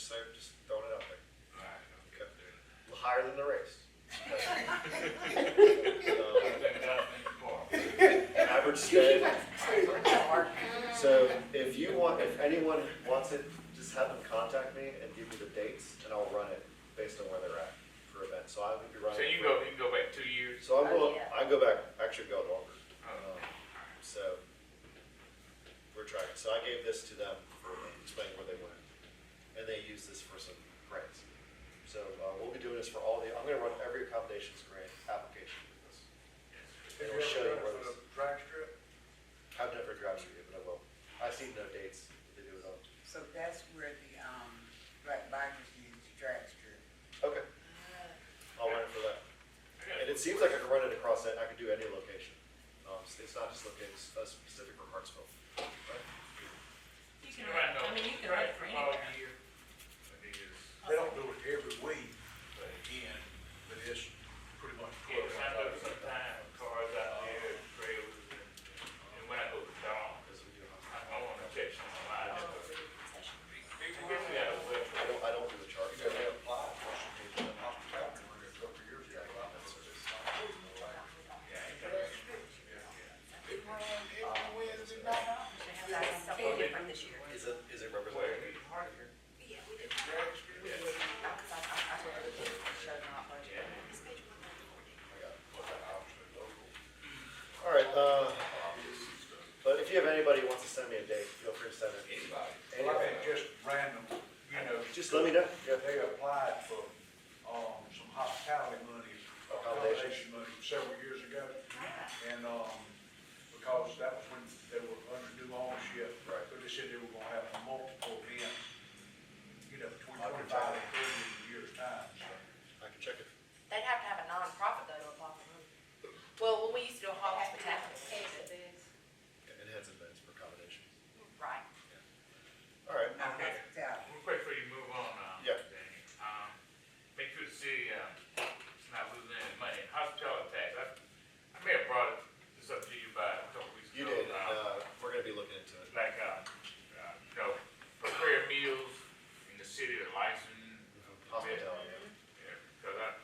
so just throwing it out there. Alright, okay. Higher than the rest. I Um, think that'll be far. Average spend. Mark. So if you want, if anyone wants it, just have them contact me and give me the dates and I'll run it based on where they're at for events. So I would be running. So you can go, you can go back two years. So I'm Oh, going, yeah. I go back, actually go longer. Oh. Um, So we're tracking. So I gave this to them for explaining where they went. And they used this for some grants. So uh, we'll be doing this for all the, I'm gonna run every accommodations grant application with this. Have And you we'll show you ever where done it this, for the drag strip? I've never drive through yet, but I will. I've seen no dates that they do it on. So that's where the, um, black bikers use the drag strip. Okay. I'll run it for that. And it seems like I can run it across that, I could do any location. Um, so It's not just located, it's uh, specific for Hartsville. right? You can run, I mean, you can run it for anywhere. All year. But it is, They don't do it every week, but again, but it's pretty much yeah, twelve. I know sometimes cars out there, trailers, and, and when I go to Dawn, Because we do have- I, I wanna check some of my, I All guess over the concession. we got a web. I don't, I don't do the charge. You know, they applied for some people in hospitality when they were a couple of years ago, I mean, so it's not really like- They have that something different this year. Is it, is it Where represented? we park here. All right, uh, but if you have anybody who wants to send me a date, feel free to send it. Well, I mean, just random, you know. Just let me know. Yeah, they applied for, um, some hospitality money, accommodation money several years ago. And, um, because that was when they were under new ownership. Right. But they said they were gonna have multiple events, you know, between I can twenty-five try. and thirty years' time, so. I can check it. They'd have to have a nonprofit though to apply for them. Well, when we used to do a hospitality, Yeah, It has events for accommodations. right, All right. Not hospitality. Real quick before you move on, um, Yeah. Danny, um, make sure the city, um, is not losing any money, hospitality tax, I, I may have brought it- this up to you by a couple weeks You ago. did, and, uh, um, we're gonna be looking into it. like, uh, uh, you know, prepare meals in the city, the license. Hospitality. Because I,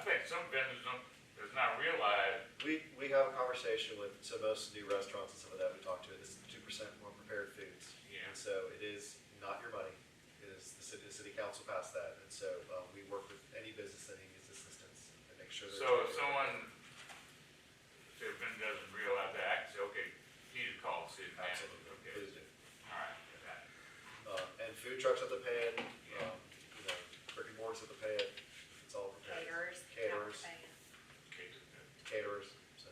I think some vendors don't, does not realize, We, we have a conversation with, so most new restaurants and some of that we talk to, it's two percent more prepared foods. Yeah. And so it is not your money, it is, the city, the city council passed that, and so, um, we work with any business that needs assistance and make sure. they're- so if someone, if a vendor doesn't realize that, I can say, okay, you need to call the city manager. Absolutely, Okay, please do. all right, got it. Um, and food trucks have to pay it, um, you know, brick and mortars have to pay it, it's all prepared, caterers. Caterers. Okay, caterers, so.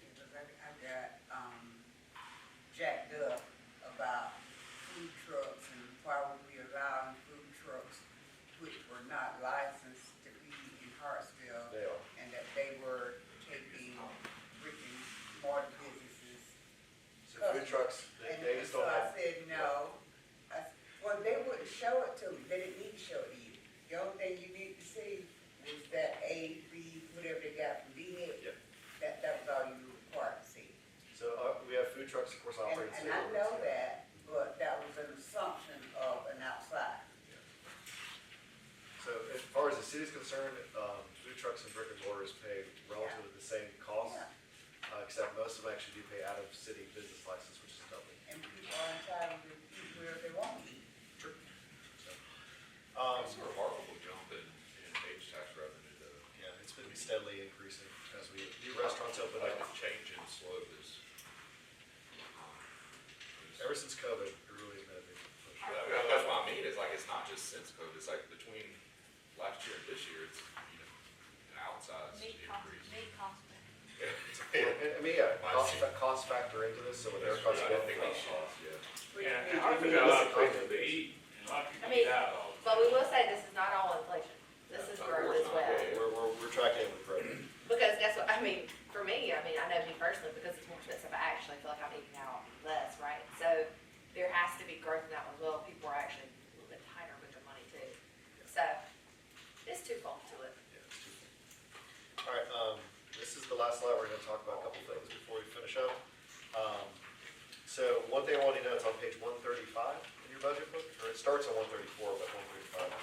Because I, I got, um, jacked up about food trucks and why would we allow food trucks which were not licensed to be in Hartsville They are. and that they were taking brick and mortar businesses So food trucks, they, Oh. And they just don't have. So I said, no. I s- well, they wouldn't show it to me, they didn't need to show it to you. The only thing you need to see was that A, B, whatever they got from B Head. Yep. That, that was all you were required to see. So, uh, we have food trucks, of course, And, operating. city and I limits, know yeah. that, but that was an assumption of an outside. So as far as the city's concerned, um, food trucks and brick and mortars pay relatively the same cost, Yeah. uh, except most of them actually do pay out of city business license, which is double. And people are entitled to eat where they want to eat. Um, That's a remarkable jump in, in age tax revenue though. yeah, it's been steadily increasing as we, new restaurants open Like up. the change in slope is. Ever since COVID, it really has been a big push. That- that- That's what I mean, it's like, it's not just since COVID, it's like between last year and this year, it's, you know, an outsized Meat cost, increase. meat cost. And- I mean, yeah, My cost, seat. costs factor into this, so when uh, their That's costs right, go I up. think they should, yeah. Which Yeah, means- I forgot a lot of places to eat, and a lot of I people mean, eat out all the time. But we will say this is not all inflation, this is Of growth as course not, well. yeah. We're, we're, we're tracking it with growth. Because that's what, I mean, for me, I mean, I know me personally, because it's more expensive, I actually feel like I'm eating out less, right? So there has to be growth in that one, as well, people are actually a little bit tighter with their money too. So it's twofold to it. Yeah, it's too big. All right, um, this is the last slide, we're gonna talk about a couple things before we finish up. Um, so one thing I want you to know, it's on page one thirty-five in your budget book, or it starts on one thirty-four, but one thirty-five